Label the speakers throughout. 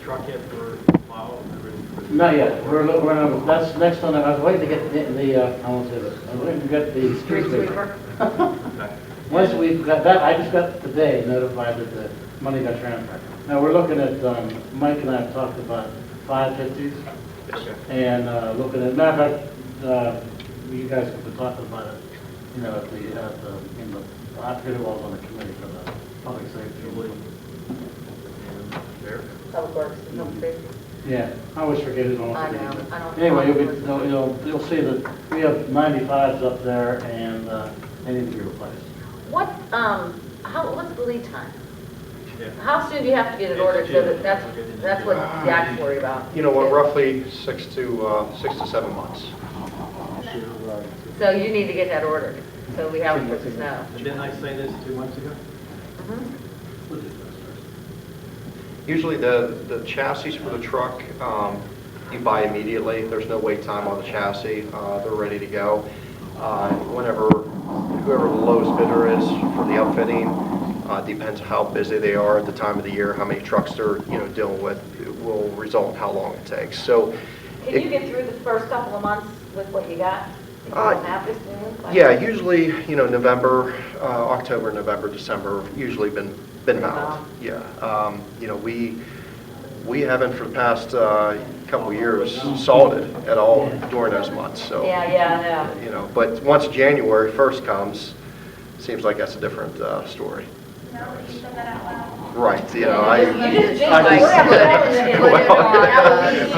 Speaker 1: truck yet for plow?
Speaker 2: Not yet, we're, lo- we're, on- that's next on, the- I was waiting to get the, the, uh, I won't say this, I was waiting to get the street sweeper.
Speaker 1: Okay.
Speaker 2: Once we've got that, I just got today notified that the money got transferred. Now, we're looking at, um, Mike and I have talked about five fifties
Speaker 1: Okay.
Speaker 2: and, uh, looking at, matter of fact, uh, you guys have been talking about it, you know, at the, at the, in the, I forget who was on the committee for the public safety.
Speaker 1: And there.
Speaker 3: Public Works, and Public Safety.
Speaker 2: Yeah, I always forget it on.
Speaker 3: I know, I don't-
Speaker 2: Anyway, you'll be, you'll- you'll, you'll see that we have 95s up there and uh, they need to be replaced.
Speaker 3: What, um, how, what's the lead time?
Speaker 1: Yeah.
Speaker 3: How soon do you have to get it ordered, so that, that's, that's what the act's worry about?
Speaker 4: You know, what, roughly six to, uh, six to seven months.
Speaker 2: uh,
Speaker 3: So you need to get that ordered, so we have it for the snow.
Speaker 1: And Didn't I say this two months ago?
Speaker 4: Usually the, the chassis for the truck, um, you buy immediately, there's no wait time on the chassis, uh, they're ready to go. Uh, Whenever, whoever the lowest bidder is for the outfitting, uh, depends how busy they are at the time of the year, how many trucks they're, you know, dealing with, it will result in how long it takes, so.
Speaker 3: Can
Speaker 4: it-
Speaker 3: you get through the first couple of months with what you got? If you
Speaker 4: Uh,
Speaker 3: don't have this new? like-
Speaker 4: Yeah, usually, you know, November, uh, October, November, December, usually been, been
Speaker 3: Wow.
Speaker 4: mild. Yeah, um, you know, we, we haven't for the past, uh, couple years salted at all during those months, so.
Speaker 3: Yeah, yeah, I know.
Speaker 4: You know, but once January first comes, seems like that's a different, uh, story.
Speaker 5: No, you said that out loud.
Speaker 4: Right, you know, I.
Speaker 3: You just jinxed
Speaker 4: I
Speaker 3: it. We're having a problem with it.
Speaker 4: Well,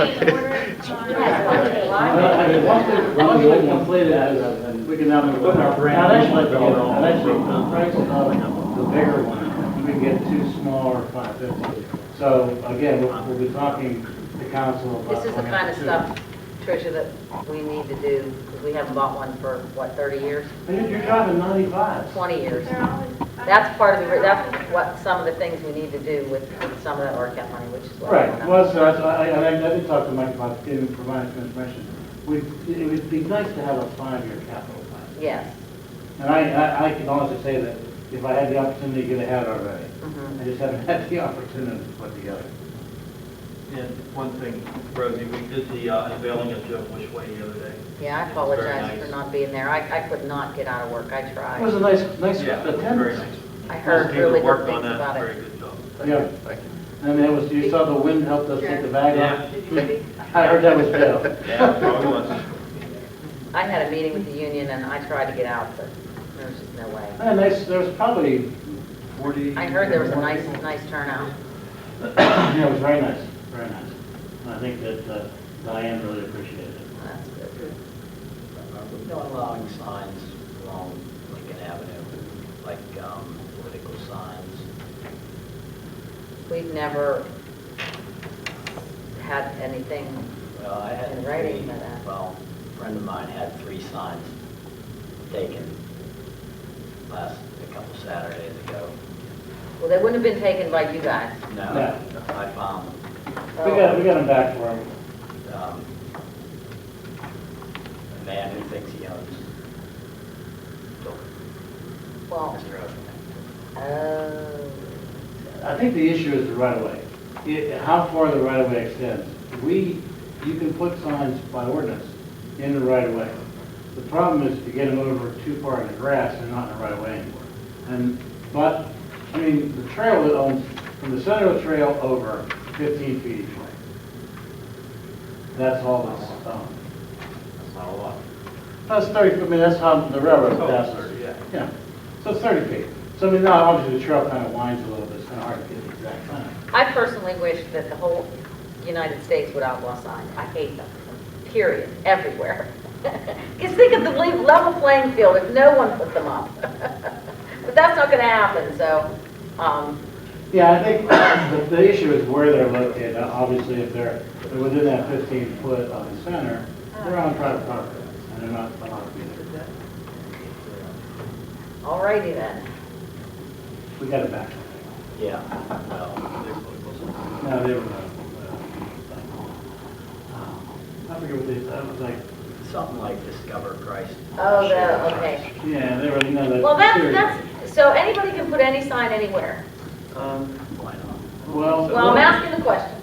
Speaker 2: I mean, once they, once they complete it, we can now move on.
Speaker 1: Our brand
Speaker 2: Now, that's
Speaker 1: new
Speaker 2: like, you
Speaker 1: build.
Speaker 2: know, that's like the price of the bigger one, we can get two smaller 550s. So again, we'll, we'll be talking to council about.
Speaker 3: This is the kind of stuff, Tricia, that we need to do, because we haven't bought one for, what, 30 years?
Speaker 2: And you're- you're driving 95s.
Speaker 3: 20 years.
Speaker 5: They're always-
Speaker 3: That's part of the, that's what, some of the things we need to do with with some of that ORCAP money, which is what. I
Speaker 2: Right,
Speaker 3: wanna-
Speaker 2: well, so that's- I, I, I did talk to Mike about giving, providing some information. We, it would be nice to have a five-year capital plan.
Speaker 3: Yes.
Speaker 2: And I, I, I can honestly say that if I had the opportunity, to get ahead already.
Speaker 3: Mhm.
Speaker 2: I just haven't had the opportunity to put together.
Speaker 1: And one thing, Rosie, we did the uh, unveiling of Joe Bush Way the other day.
Speaker 3: Yeah, I
Speaker 1: It was very
Speaker 3: apologize for
Speaker 1: nice.
Speaker 3: not being there. I, I could not get out of work. I
Speaker 2: It was
Speaker 3: tried.
Speaker 2: a nice, nice
Speaker 1: Yeah, it was very
Speaker 2: attendance.
Speaker 1: nice.
Speaker 3: I heard
Speaker 1: Most people
Speaker 3: really
Speaker 1: worked
Speaker 3: good
Speaker 1: on
Speaker 3: things
Speaker 1: that,
Speaker 3: about
Speaker 1: Very
Speaker 3: it.
Speaker 1: good job.
Speaker 2: Yeah,
Speaker 4: Thank you.
Speaker 2: and it was, you saw the wind helped us take the bag off.
Speaker 1: Yeah.
Speaker 2: I heard that was Bill.
Speaker 1: Yeah, probably was.
Speaker 3: I had a meeting with the union and I tried to get out, but there was just no way.
Speaker 2: And nice, there was probably forty.
Speaker 3: I heard there was a
Speaker 2: 41
Speaker 3: nice,
Speaker 2: people.
Speaker 3: nice turnout.
Speaker 2: Yeah, it was very nice, very nice. And I think that uh, Diane really appreciated it.
Speaker 3: That's good.
Speaker 6: No allowing signs along Lincoln Avenue, like um, political signs.
Speaker 3: We've never had anything,
Speaker 6: Well, Uh, I had
Speaker 3: In
Speaker 6: three,
Speaker 3: writing by that.
Speaker 6: well, a friend of mine had three signs taken last, a couple Saturdays ago.
Speaker 3: well, they wouldn't have been taken by you guys.
Speaker 6: No,
Speaker 2: No.
Speaker 6: I found,
Speaker 2: We got, we got him back for him.
Speaker 6: um, a man who thinks he owns
Speaker 3: Well,
Speaker 6: Mr. Ocean.
Speaker 3: oh,
Speaker 2: I think the issue is the right of way. It- How far the right of way extends. We, you can put signs by ordinance in the right of way. The problem is to get them over too far in the grass, they're not in the right of way anymore. And, but, I mean, the trail that owns, from the center of the trail over fifteen feet each way. That's all that's um, owned.
Speaker 6: That's not a lot.
Speaker 2: That's thirty, I mean, that's how the railroad
Speaker 1: Oh,
Speaker 2: passes.
Speaker 1: thirty, yeah.
Speaker 2: Yeah, so it's thirty feet. So I mean, now obviously the trail kind of winds a little bit, it's kind of hard to get the exact time.
Speaker 3: I personally wish that the whole United States would outlaw signs. I hate them, period, everywhere. Because think of the le- level playing field if no one put them up. But that's not going to happen, so, um,
Speaker 2: Yeah, I think the, the issue is where they're located. Now, Obviously, if they're, they're within that fifteen foot of the center, they're on private property, and they're not allowed to be there.
Speaker 3: all righty then.
Speaker 2: We got it back.
Speaker 6: Yeah, well,
Speaker 2: No, they were, uh, uh, I forget what they, I was like,
Speaker 6: something like Discover Christ.
Speaker 3: Oh, the- okay.
Speaker 2: yeah, they were, you know, that.
Speaker 3: Well,
Speaker 2: period.
Speaker 3: that's, that's, so anybody can put any sign anywhere.
Speaker 6: Um, why not?
Speaker 2: Well.
Speaker 3: Well, I'm asking the question.